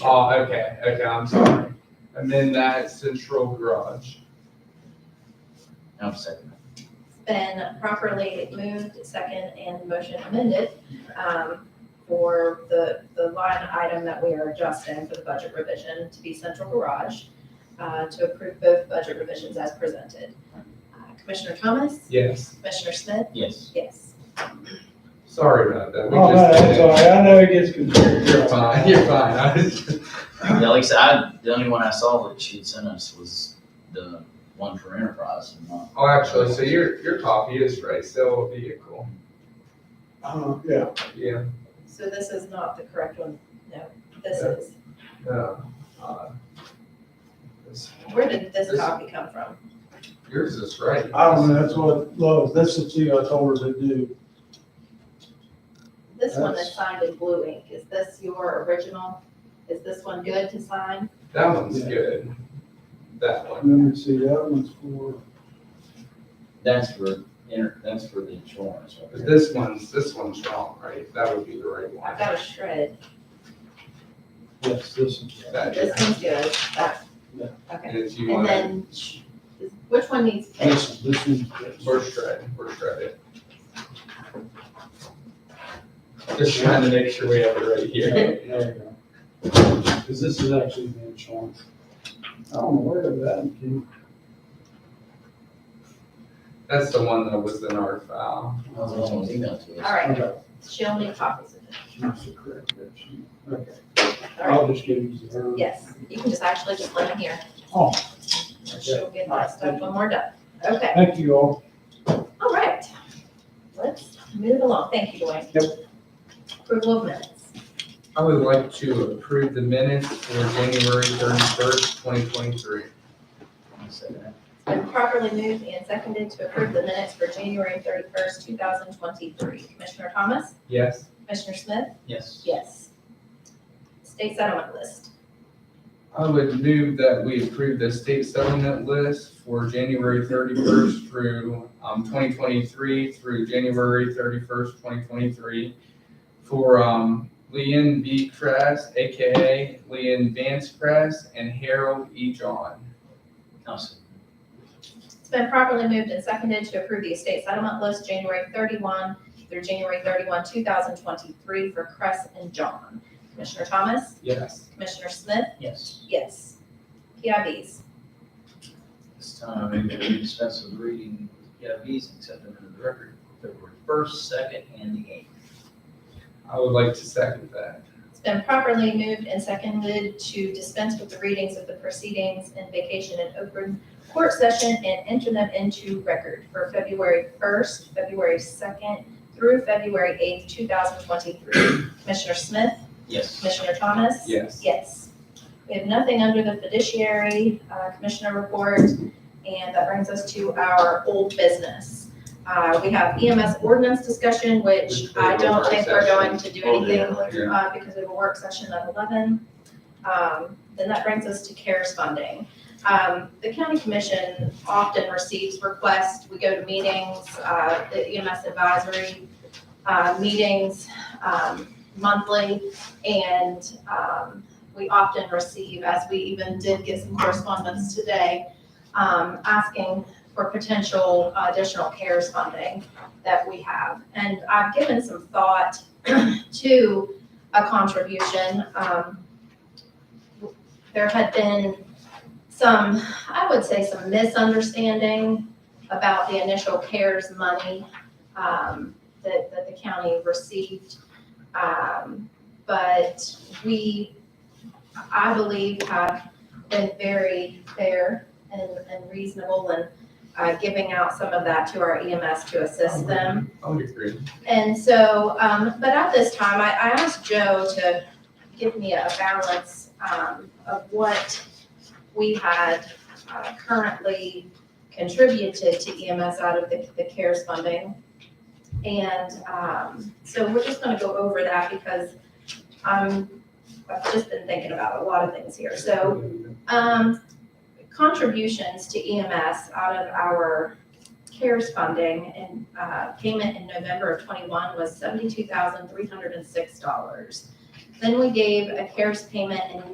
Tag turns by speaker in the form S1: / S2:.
S1: Oh, okay, okay, I'm sorry. And then that's central garage.
S2: I'm second.
S3: been properly moved, second, and motion amended um, for the, the line item that we are adjusting for the budget revision to be central garage, uh, to approve both budget revisions as presented. Uh, Commissioner Thomas?
S1: Yes,
S3: Commissioner Smith?
S2: Yes.
S3: Yes.
S1: sorry about that. We
S4: Oh, no,
S1: just-
S4: that's all right, I know it gets confusing.
S1: You're fine, you're fine. I just-
S2: At least I, the only one I saw that she'd sent us was the one for Enterprise. and uh, not-
S1: Oh, actually, so your, your copy is right, sell a vehicle.
S4: Uh, yeah,
S1: Yeah,
S3: So this is not the correct one, no, this is,
S1: no. uh, this-
S3: where did this copy come from?
S1: Yours is right.
S4: I don't know, that's what, Lois, that's the two I told her to do.
S3: This one is
S4: That's-
S3: signed in blue ink, is this your original? Is this one good to sign?
S1: That one's good. That one.
S4: Let me see, that one's for,
S2: That's for, inter- that's for the insurance. right
S1: But
S2: there.
S1: this one's, this one's wrong, right? That would be the right one.
S3: I've got a shred,
S4: yes, this one.
S1: That
S3: this
S1: is-
S3: one's good, that,
S4: Yeah.
S3: okay.
S1: And if you
S3: And
S1: want to,
S3: then, sh- is- which one needs fixed?
S4: This, this one.
S1: we're shredded, we're shredded. Just trying to make sure we have it right here.
S4: There you go. Cause this is actually the insurance. I don't know where that came.
S1: That's the one that was in our file.
S2: That was the only one emailed to us.
S3: All right,
S4: Okay.
S3: she'll need copies of it.
S4: That's the correct version. Okay,
S3: All right,
S4: I'll just give you the. her.
S3: yes, you can just actually just let them here.
S4: Oh.
S3: And She'll get that stuff when we're done. Okay,
S4: Thank you all.
S3: all right. Let's move along. Thank you, Dwayne. Yep. Approval of minutes.
S1: I would like to approve the minutes for January thirty-first, twenty twenty-three.
S2: I'll second that.
S3: It's been properly moved and seconded to approve the minutes for January thirty-first, two thousand twenty-three. Commissioner Thomas?
S1: Yes,
S3: Commissioner Smith?
S2: Yes.
S3: Yes. State settlement list.
S1: I would move that we approve the state settlement list for January thirty-first through, um, twenty twenty-three through January thirty-first, twenty twenty-three for, um, Leon B. Kress, AKA Leon Vance Kress, and Harold E. John.
S2: I'll second.
S3: It's been properly moved and seconded to approve the estate settlement list January thirty-one through January thirty-one, two thousand twenty-three for Cress and John. Commissioner Thomas?
S1: Yes.
S3: Commissioner Smith?
S2: Yes.
S3: Yes. PIBs.
S2: This time, I move that we dispense with reading the PIVs except under the record, February first, second, and the eighth.
S1: I would like to second that.
S3: It's been properly moved and seconded to dispense with the readings of the proceedings and vacation and open court session and enter them into record for February first, February second through February eighth, two thousand twenty-three. Commissioner Smith?
S2: Yes.
S3: Commissioner Thomas?
S1: Yes.
S3: Yes. We have nothing under the fiduciary uh, commissioner report, and that brings us to our old business. Uh, We have EMS ordinance discussion, which
S1: Which
S3: I
S1: we're
S3: don't
S1: in
S3: think we're
S1: session.
S3: going to do
S2: Oh, yeah,
S3: anything
S2: later.
S3: uh, because we have a work session at eleven. Um, Then that brings us to CARES funding. Um, The county commission often receives requests, we go to meetings, uh, the EMS advisory uh, meetings um, monthly, and um, we often receive, as we even did get some correspondence today, um, asking for potential additional CARES funding that we have. And I've given some thought to a contribution. Um, There had been some, I would say, some misunderstanding about the initial CARES money um, that, that the county received. Um, But we, I believe, have been very fair and, and reasonable in uh, giving out some of that to our EMS to assist them.
S1: I would agree.
S3: And so, um, but at this time, I, I asked Joe to give me a balance, um, of what we had uh, currently contributed to EMS out of the, the CARES funding. And, um, so we're just gonna go over that because I'm, I've just been thinking about a lot of things here. So, um, contributions to EMS out of our CARES funding and, uh, payment in November of twenty-one was seventy-two thousand, three hundred and six dollars. Then we gave a CARES payment in